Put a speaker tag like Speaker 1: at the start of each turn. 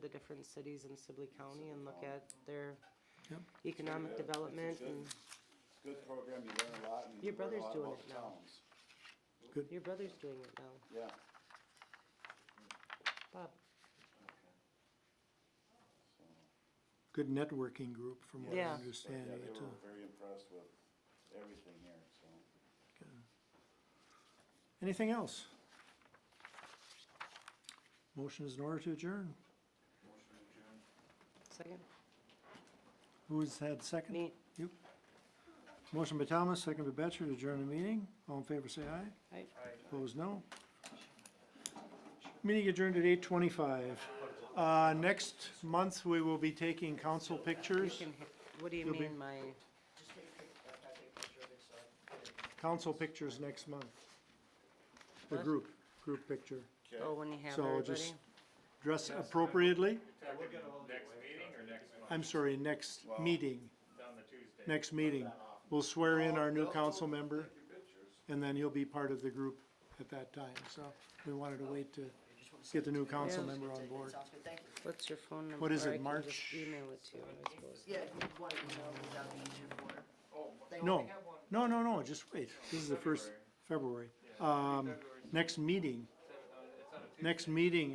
Speaker 1: different cities in Sibley County and look at their economic
Speaker 2: Very good. That's a
Speaker 1: development
Speaker 2: good-
Speaker 1: and
Speaker 2: Good program, you learn a lot and you
Speaker 1: Your
Speaker 2: learn a
Speaker 1: brother's
Speaker 2: lot
Speaker 1: doing
Speaker 2: about
Speaker 1: it
Speaker 2: the
Speaker 1: now.
Speaker 2: towns.
Speaker 1: your brother's doing it now,
Speaker 2: Yeah,
Speaker 1: Bob.
Speaker 2: so,
Speaker 3: good networking group from what I
Speaker 1: Yeah.
Speaker 2: but
Speaker 3: understand.
Speaker 2: yeah, they
Speaker 3: It's a-
Speaker 2: were very impressed with everything here, so.
Speaker 3: Anything else? Motion is in order to adjourn.
Speaker 1: Second?
Speaker 3: Who's had second?
Speaker 1: Me.
Speaker 3: You. Motion by Thomas, second by Batchor to adjourn the meeting. All in favor, say aye.
Speaker 1: Aye.
Speaker 3: Opposed, no. Meeting adjourned at eight twenty-five. Uh, next month, we will be taking council
Speaker 1: You
Speaker 3: pictures,
Speaker 1: can, hit- what do you
Speaker 3: You'll be-
Speaker 1: mean, my,
Speaker 3: council pictures next month. The
Speaker 1: What?
Speaker 3: group, group picture.
Speaker 1: oh, when you have
Speaker 3: So
Speaker 1: everybody?
Speaker 3: just dress appropriately.
Speaker 4: Next meeting or next month,
Speaker 3: I'm sorry, next meeting,
Speaker 4: on the Tuesday?
Speaker 3: next meeting. We'll swear in our new council member, and then you'll be part of the group at that time, so we wanted
Speaker 5: Oh,
Speaker 3: to wait to get the new council
Speaker 1: Yeah.
Speaker 3: member on board.
Speaker 5: Sounds good, thank you.
Speaker 1: What's your phone number?
Speaker 3: What is
Speaker 1: Or
Speaker 3: it,
Speaker 1: I can just
Speaker 3: March?
Speaker 1: Email it to you, I suppose.
Speaker 5: Yeah, if you want to email me, that'd be easier for her. They
Speaker 3: No,
Speaker 5: only have one.
Speaker 3: no, no, no, just wait, this is
Speaker 4: uh,
Speaker 3: the first, February. Um, next meeting, next meeting